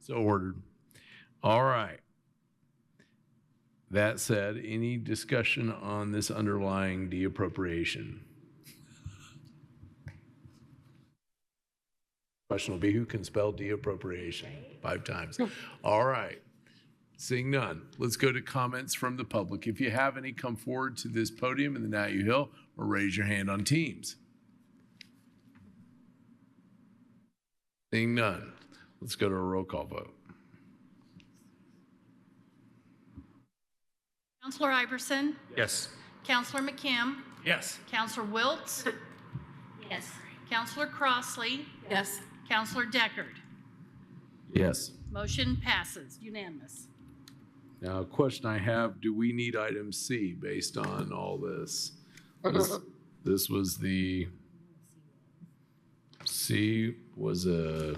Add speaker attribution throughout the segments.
Speaker 1: So ordered. All right. That said, any discussion on this underlying deappropriation? Question will be who can spell deappropriation five times. All right. Seeing none, let's go to comments from the public. If you have any, come forward to this podium in the Now You Hill or raise your hand on Teams. Seeing none, let's go to a roll call vote.
Speaker 2: Counselor Iverson,
Speaker 3: Yes.
Speaker 2: Counselor McKim,
Speaker 3: Yes.
Speaker 2: Counselor Wiltz,
Speaker 4: Yes.
Speaker 2: Counselor Crossley,
Speaker 4: Yes.
Speaker 2: Counselor Deckard.
Speaker 1: Yes.
Speaker 2: Motion passes unanimous.
Speaker 1: Now, a question I have, do we need item C based on all this? This, this was the, C was a,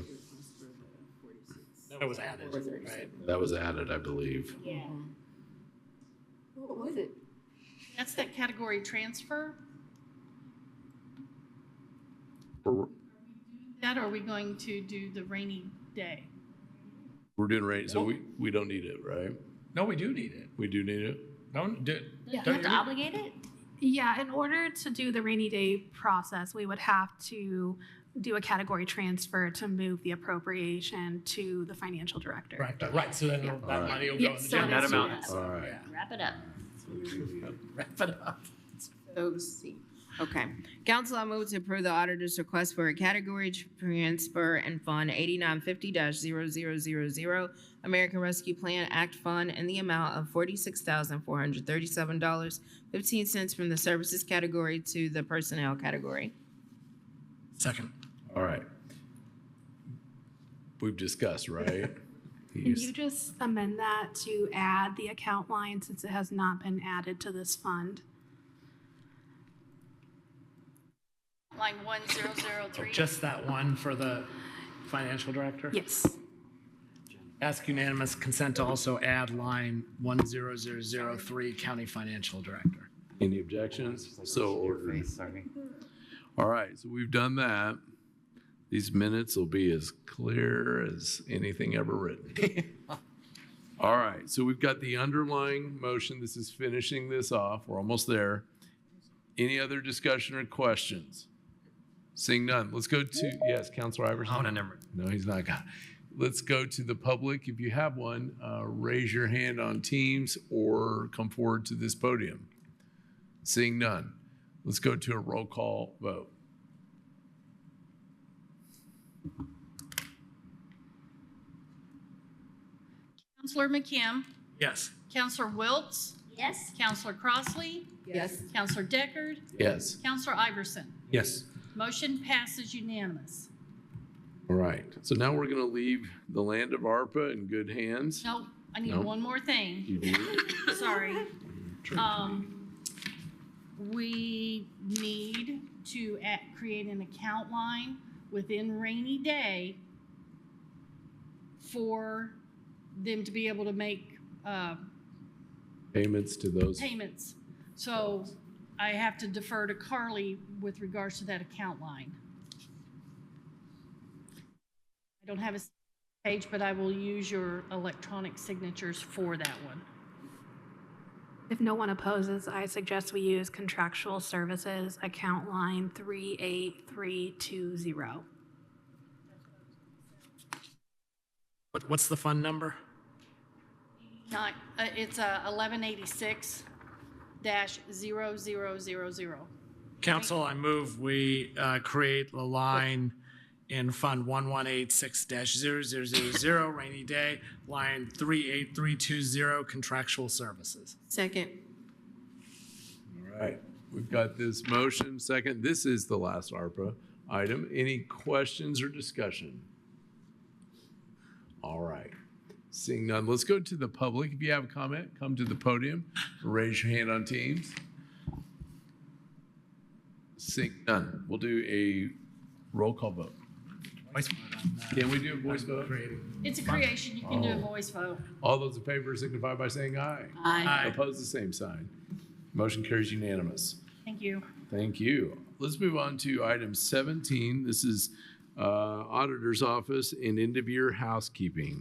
Speaker 3: That was added, right?
Speaker 1: that was added, I believe.
Speaker 4: Yeah.
Speaker 5: Mm-hmm.
Speaker 4: What was it?
Speaker 2: That's that category transfer?
Speaker 1: We're,
Speaker 2: That or are we going to do the rainy day?
Speaker 1: we're doing right, so we, we don't need it, right?
Speaker 3: No, we do need it.
Speaker 1: We do need it?
Speaker 3: Don't do.
Speaker 4: You
Speaker 3: don't
Speaker 4: have to
Speaker 3: you-
Speaker 4: obligate it?
Speaker 6: Yeah, in order to do the rainy day process, we would have to do a category transfer to move the appropriation to the financial director.
Speaker 3: Right, right. So then that
Speaker 1: Alright.
Speaker 3: money will go in
Speaker 6: Yes,
Speaker 3: the
Speaker 6: so
Speaker 3: general.
Speaker 6: that's-
Speaker 3: fund.
Speaker 1: All right.
Speaker 3: Yeah.
Speaker 4: Wrap it up.
Speaker 3: Wrap it up.
Speaker 5: So C. Okay. Council, I move to approve the auditor's request for a category transfer and fund eighty-nine fifty 0 American Rescue Plan Act Fund in the amount of forty-six thousand four hundred thirty-seven dollars fifteen cents from the services category to the personnel category.
Speaker 3: Second.
Speaker 1: All right. We've discussed, right?
Speaker 6: Can you just amend that to add the account line since it has not been added to this fund?
Speaker 2: Line 1003.
Speaker 3: Just that one for the financial director?
Speaker 6: Yes.
Speaker 3: Ask unanimous consent to also add line one zero zero zero three, county financial director.
Speaker 1: Any objections? So ordered. All right, so we've done that. These minutes will be as clear as anything ever written. All right, so we've got the underlying motion. This is finishing this off. We're almost there. Any other discussion or questions? Seeing none, let's go to, yes, Counselor Iverson?
Speaker 3: Oh, no, never.
Speaker 1: No, he's not got. Let's go to the public. If you have one, uh, raise your hand on Teams or come forward to this podium. Seeing none, let's go to a roll call vote.
Speaker 2: Counselor McKim,
Speaker 3: Yes.
Speaker 2: Counselor Wiltz,
Speaker 4: Yes.
Speaker 2: Counselor Crossley,
Speaker 5: Yes.
Speaker 2: Counselor Deckard,
Speaker 1: Yes.
Speaker 2: Counselor Iverson.
Speaker 3: Yes.
Speaker 2: Motion passes unanimous.
Speaker 1: All right. So now we're going to leave the land of ARPA in good hands.
Speaker 2: No, I need
Speaker 1: No.
Speaker 2: one more thing.
Speaker 1: You do.
Speaker 2: Sorry. Um, we need to a- create an account line within rainy day for them to be able to make, uh,
Speaker 1: Payments to those.
Speaker 2: payments. So I have to defer to Carly with regards to that account line. I don't have a page, but I will use your electronic signatures for that one.
Speaker 6: If no one opposes, I suggest we use contractual services account line 38320.
Speaker 3: What, what's the fund number?
Speaker 2: Not, uh, it's uh, 1186 dash 0000.
Speaker 3: Council, I move we uh, create a line in Fund 1186-0000, rainy day, line 38320, contractual services.
Speaker 5: Second.
Speaker 1: All right. We've got this motion second. This is the last ARPA item. Any questions or discussion? All right. Seeing none, let's go to the public. If you have a comment, come to the podium, raise your hand on Teams. Seeing none, we'll do a roll call vote.
Speaker 3: Voice vote on that.
Speaker 1: Can we do a voice vote?
Speaker 3: Creating-
Speaker 2: It's a creation. You can do a voice vote.
Speaker 1: All those in favor signify by saying aye.
Speaker 3: Aye.
Speaker 1: Opposed, the same sign. Motion carries unanimous.
Speaker 2: Thank you.
Speaker 1: Thank you. Let's move on to item 17. This is uh, Auditor's Office and end-of-year housekeeping.